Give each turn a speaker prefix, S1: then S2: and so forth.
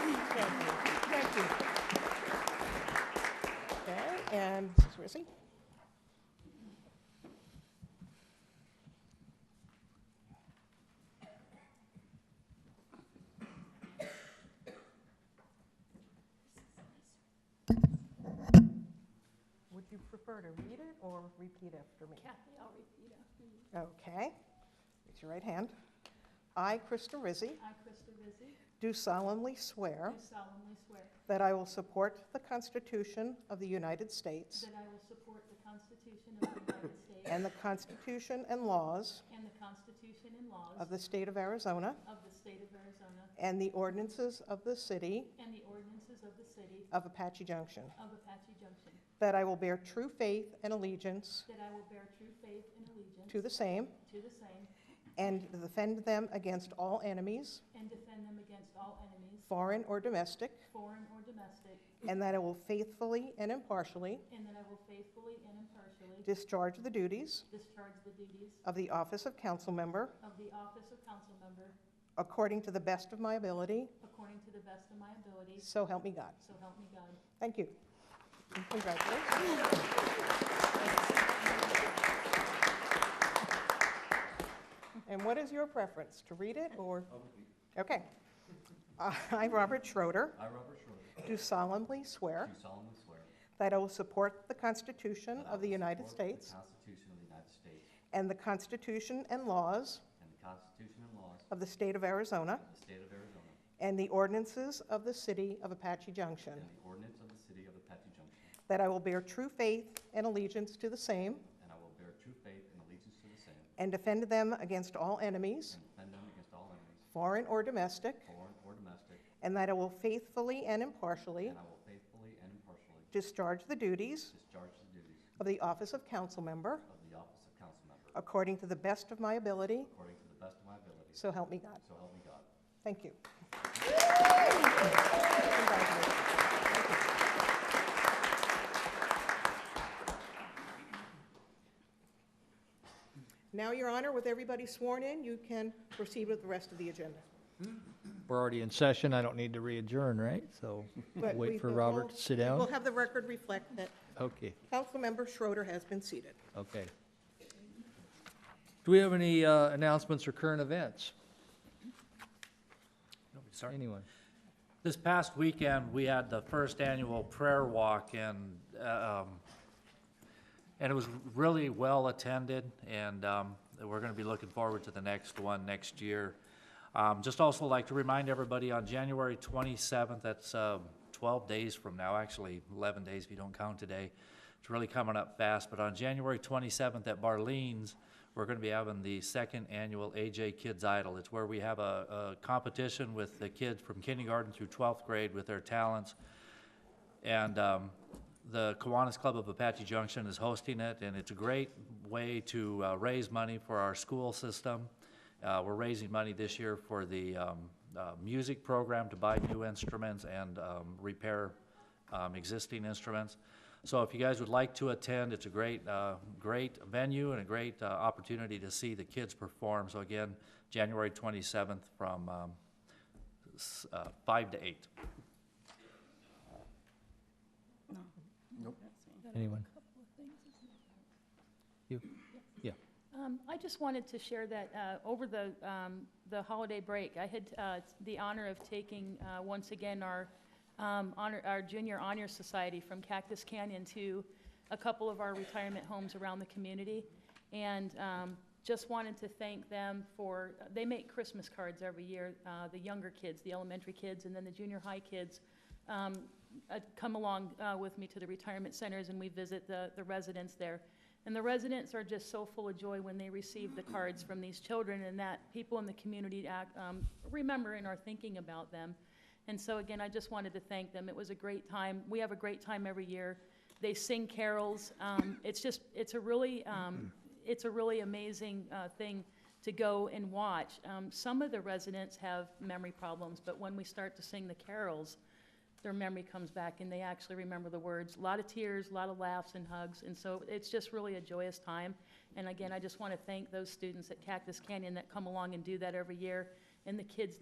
S1: Thank you. Okay, and Mrs. Wissy? Would you prefer to read it or repeat after me?
S2: Kathy, I'll repeat after you.
S1: Okay. Raise your right hand. I, Krista Rizzi,
S2: I, Krista Vizzi,
S1: do solemnly swear
S2: do solemnly swear
S1: that I will support the Constitution of the United States
S2: that I will support the Constitution of the United States
S1: and the Constitution and laws
S2: and the Constitution and laws
S1: of the state of Arizona
S2: of the state of Arizona
S1: and the ordinances of the city
S2: and the ordinances of the city
S1: of Apache Junction,
S2: of Apache Junction,
S1: that I will bear true faith and allegiance
S2: that I will bear true faith and allegiance
S1: to the same
S2: to the same
S1: and defend them against all enemies,
S2: and defend them against all enemies,
S1: foreign or domestic,
S2: foreign or domestic,
S1: and that I will faithfully and impartially
S2: and that I will faithfully and impartially
S1: discharge the duties
S2: discharge the duties
S1: of the office of council member
S2: of the office of council member
S1: according to the best of my ability,
S2: according to the best of my abilities,
S1: so help me God.
S2: so help me God.
S1: Thank you. And Congratulations. And what is your preference, to read it or? Okay. Uh, I, Robert Schroeder,
S3: I, Robert Schroeder,
S1: do solemnly
S3: do
S1: swear
S3: solemnly swear.
S1: that I will support the Constitution
S3: that I
S1: of the
S3: will
S1: United
S3: support
S1: States
S3: The Constitution of the United States
S1: and the Constitution and laws
S3: and the Constitution and laws
S1: of the state of Arizona
S3: of the state of Arizona
S1: and the ordinances of the city of Apache Junction,
S3: and the ordinance of the city of Apache Junction,
S1: that I will bear true faith and allegiance to the same
S3: and I will bear true faith and allegiance to the same
S1: and defend them against all enemies,
S3: and defend them against all enemies,
S1: foreign or domestic,
S3: foreign or domestic,
S1: and that I will faithfully and impartially
S3: and I will faithfully and impartially
S1: discharge the duties
S3: discharge the duties
S1: of the office of council member
S3: of the office of council member
S1: according to the best of my ability,
S3: according to the best of my ability,
S1: so help me God.
S3: so help me God.
S1: Thank you. Now, Your Honor, with everybody sworn in, you can proceed with the rest of the agenda.
S4: We're already in session, I don't need to re-adjourn, right? So
S1: But we-
S4: wait for
S1: we'll-
S4: Robert to sit
S1: We'll
S4: down?
S1: have the record reflect that
S4: Okay,
S1: Councilmember Schroeder has been seated.
S4: okay. Do we have any uh, announcements or current events?
S5: Sorry.
S4: Anyone?
S5: This past weekend, we had the first annual prayer walk and, uh, um, and it was really well attended and, um, we're gonna be looking forward to the next one next year. Um, just also like to remind everybody on January twenty-seventh, that's, uh, twelve days from now, actually eleven days if you don't count today. It's really coming up fast, but on January twenty-seventh at Barleans, we're gonna be having the second annual AJ Kids Idol. It's where we have a, a competition with the kids from kindergarten through twelfth grade with their talents. And um, the Kiwanis Club of Apache Junction is hosting it, and it's a great way to uh, raise money for our school system. Uh, We're raising money this year for the um, uh, music program to buy new instruments and um, repair um, existing instruments. So if you guys would like to attend, it's a great, uh, great venue and a great uh, opportunity to see the kids perform. So again, January 27th from um, s- uh, 5 to 8.
S4: Anyone? You? Yeah.
S6: Um, I just wanted to share that uh, over the, um, the holiday break, I had uh, the honor of taking, uh, once again, our um, honor, our junior honor society from Cactus Canyon to a couple of our retirement homes around the community. And um, just wanted to thank them for, uh, they make Christmas cards every year, uh, the younger kids, the elementary kids, and then the junior high kids um, uh, come along uh, with me to the retirement centers, and we visit the the residents there. And the residents are just so full of joy when they receive the cards from these children, and that people in the community act, um, remember and are thinking about them. And so again, I just wanted to thank them. It was a great time. We have a great time every year. They sing carols. Um, it's just, it's a really, um, it's a really amazing, uh, thing to go and watch. Um, some of the residents have memory problems, but when we start to sing the carols, their memory comes back and they actually remember the words. A lot of tears, a lot of laughs and hugs, and so it's just really a joyous time. And again, I just want to thank those students at Cactus Canyon that come along and do that every year, and the kids that